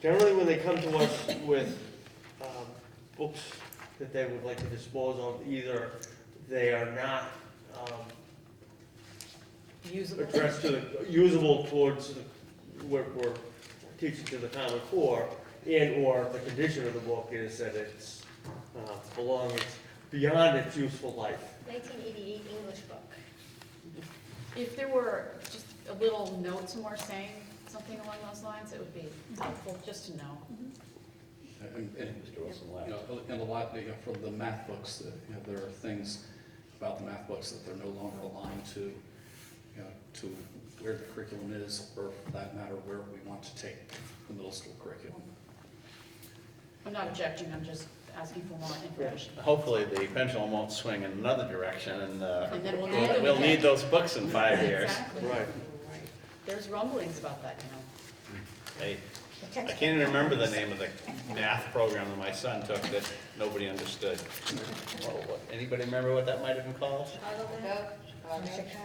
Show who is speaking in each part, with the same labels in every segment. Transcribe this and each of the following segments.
Speaker 1: Generally, when they come to us with um, books that they would like to dispose of, either they are not um,
Speaker 2: Usable.
Speaker 1: addressed to, the- usable towards, the- we're, we're teaching to the common core, and/or the condition of the book is that it's, uh, belongs beyond its useful life.
Speaker 3: 1988 English book.
Speaker 2: If there were just a little note somewhere saying something along those lines, it would be helpful just to know.
Speaker 4: And, and, you know, and a lot, you know, from the math books, that, you know, there are things about the math books that they're no longer aligned to, you know, to where the curriculum is, or for that matter, where we want to take the middle school curriculum.
Speaker 2: I'm not objecting, I'm just asking for more information.
Speaker 5: Hopefully, the pendulum won't swing in another direction, and uh,
Speaker 2: And then we'll need
Speaker 5: we'll
Speaker 2: them
Speaker 5: we'll
Speaker 2: again.
Speaker 5: need those books in five years.
Speaker 2: Exactly. There's rumblings about that now.
Speaker 5: I I can't even remember the name of the math program that my son took that nobody understood. Well, what- Anybody remember what that might have been called?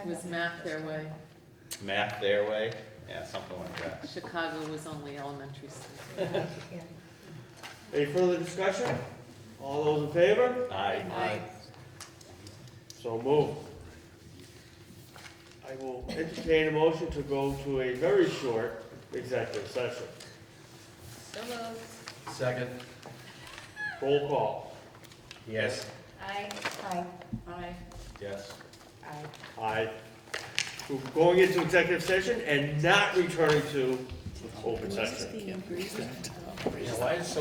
Speaker 6: Was math their way.
Speaker 5: Math their way? Yeah, something like that.
Speaker 6: Chicago was only elementary school.
Speaker 1: Any further discussion? All those in favor?
Speaker 5: Aye.
Speaker 1: So move. I will entertain a motion to go to a very short executive session.
Speaker 3: So moved.
Speaker 5: Second.
Speaker 1: Roll call.
Speaker 5: Yes.
Speaker 3: Aye.
Speaker 2: Aye.
Speaker 5: Yes.
Speaker 1: Aye. We're going into executive session and not returning to open session.
Speaker 5: Yeah, why is